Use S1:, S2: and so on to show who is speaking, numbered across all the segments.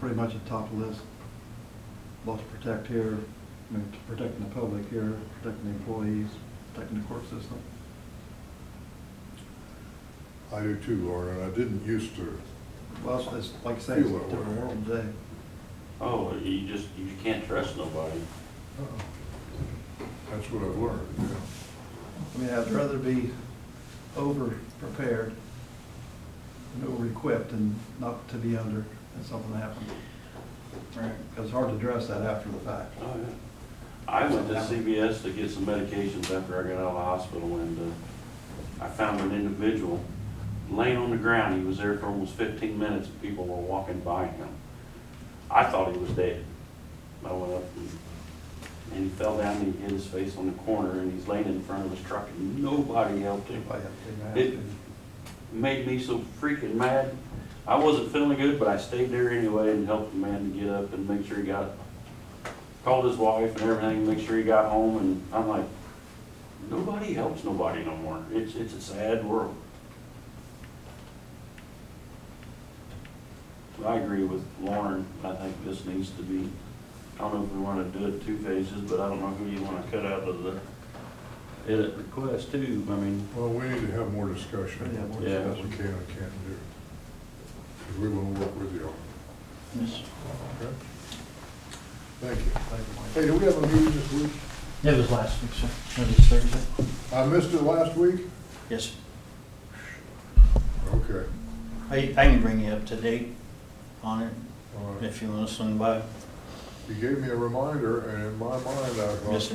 S1: pretty much at the top of the list. Both to protect here, I mean, to protecting the public here, protecting the employees, protecting the court system.
S2: I do too, Laura, and I didn't used to.
S1: Well, it's- it's, like I say, it's a
S2: Feel that way.
S1: different world today.
S3: Oh, you just, you can't trust nobody.
S2: That's what I've learned, yeah.
S1: I mean, I'd rather be over-prepared and over-equipped and not to be under if something happened. Right. Because it's hard to address that after the fact.
S3: Oh, yeah. I went to CVS to get some medications after I got out of the hospital and, uh, I found an individual laying on the ground. He was there for almost fifteen minutes. and People were walking by him. I thought he was dead. I went up and, and he fell down and he hit his face on the corner and he's laying in front of his truck and nobody helped him.
S1: Everybody have to be mad.
S3: It- made me so freaking mad. I wasn't feeling good, but I stayed there anyway and helped the man to get up and make sure he got, called his wife and everything, make sure he got home, and I'm like, nobody helps nobody no more. It's, it's a sad world. But I agree with Lauren. I think this needs to be, I don't know if we want to do it two phases, but I don't know who you want to cut out of the edit request too. I mean,
S2: Well, we need to have more discussion.
S1: Yeah, more
S3: Yeah.
S2: What we can and can't do. Because we want to work with you all,
S4: Yes.
S2: okay? Thank you.
S1: Thank you, Mike.
S2: Hey, do we have a meeting this week?
S4: It was last week, sir. It was Thursday.
S2: I missed it last week?
S4: Yes.
S2: Okay,
S4: I, I can bring you up to date on it
S2: all right.
S4: if you want to swing by.
S2: You gave me a reminder, and in my mind, I thought.
S4: Yes, sir.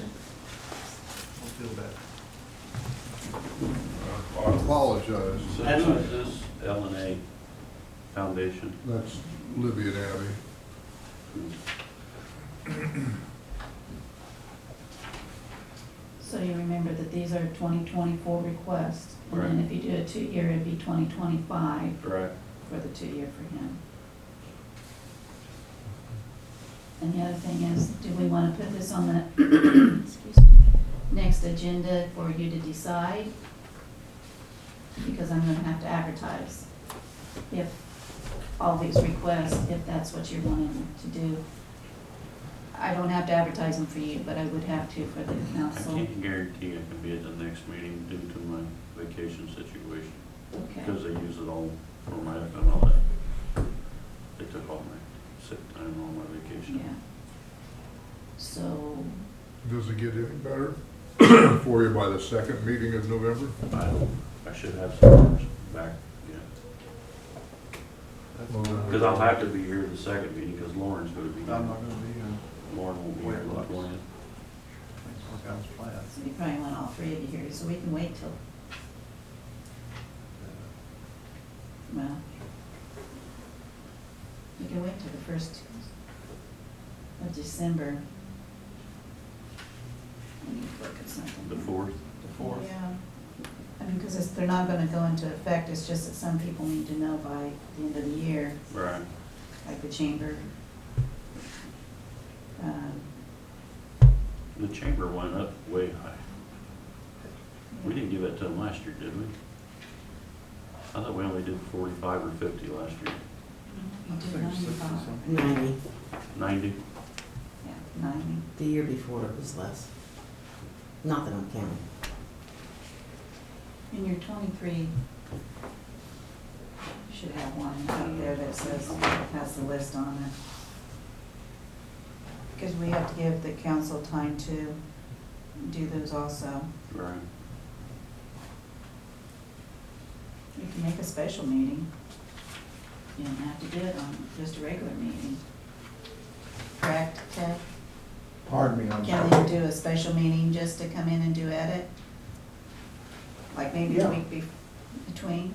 S1: Don't feel bad.
S2: I apologize.
S3: So
S4: That's
S3: who
S4: what-
S3: is this L and A Foundation?
S2: That's Libby and Abby.
S5: So you remember that these are 2024 requests, and then
S3: Right.
S5: if you do a two-year, it'd be 2025
S3: Right.
S5: for the two-year for him. And the other thing is, do we want to put this on the, excuse me, next agenda for you to decide? Because I'm going to have to advertise if all these requests, if that's what you're wanting to do. I don't have to advertise them for you, but I would have to for the
S3: I
S5: council.
S3: can't guarantee I can be at the next meeting due to my vacation situation,
S5: Okay,
S3: because they use it all for my, and all that. They took all my sick time, all my
S5: yeah.
S3: vacation.
S5: So,
S2: Does it get any better for you by the second meeting of November?
S3: I, I should have some hours back, yeah,
S1: That's-
S3: because I'll have to be here the second meeting, because Lauren's gonna be
S1: I'm
S3: here.
S1: not gonna be here.
S3: Lauren won't be here on the twentieth.
S1: Thanks for the guys' plans.
S5: so you probably want all three of you here, so we can wait till, well, we can wait till the first of December. I need to look at something.
S3: The fourth,
S1: The fourth,
S5: Yeah, I mean, because they're not gonna go into effect, it's just that some people need to know by the end of the year,
S3: right,
S5: like the chamber. Um,
S3: the chamber went up way high. We didn't give it to them last year, did we? I thought we only did forty-five or fifty last year,
S5: You
S1: I
S5: do
S1: think six or
S5: 95,
S1: something.
S6: 90,
S3: ninety.
S5: Yeah, ninety.
S6: the year before it was less. Not that I'm counting.
S5: In your twenty-three, you should have one up there that says, has the list on it. Because we have to give the council time to do those also.
S3: Right.
S5: We can make a special meeting. You don't have to do it on just a regular meeting. Correct, Ted?
S4: Pardon me, I'm
S5: Can they do a special meeting just to come in and do edit? Like maybe a
S4: Yeah.
S5: week bef- between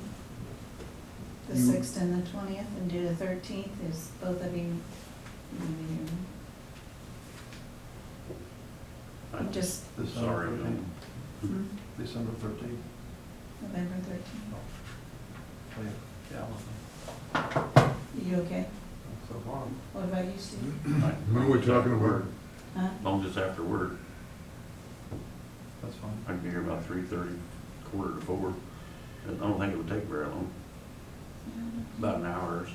S5: the
S4: You-
S5: sixth and the twentieth and do the thirteenth, is both of you? you-
S3: I'm
S5: Just
S1: December
S3: Sorry,
S1: 13th.
S3: no.
S5: hmm,
S1: December thirteenth.
S5: November thirteenth,
S1: Yeah,
S5: you okay?
S1: so far.
S5: What about you, Steve?
S3: Mm-hmm.
S2: When are we talking about?
S5: Huh?
S3: Long as after work,
S1: That's fine.
S3: I can be here about three thirty, quarter to four. I don't think it would take very long,
S5: Yeah.
S3: about an hour or so.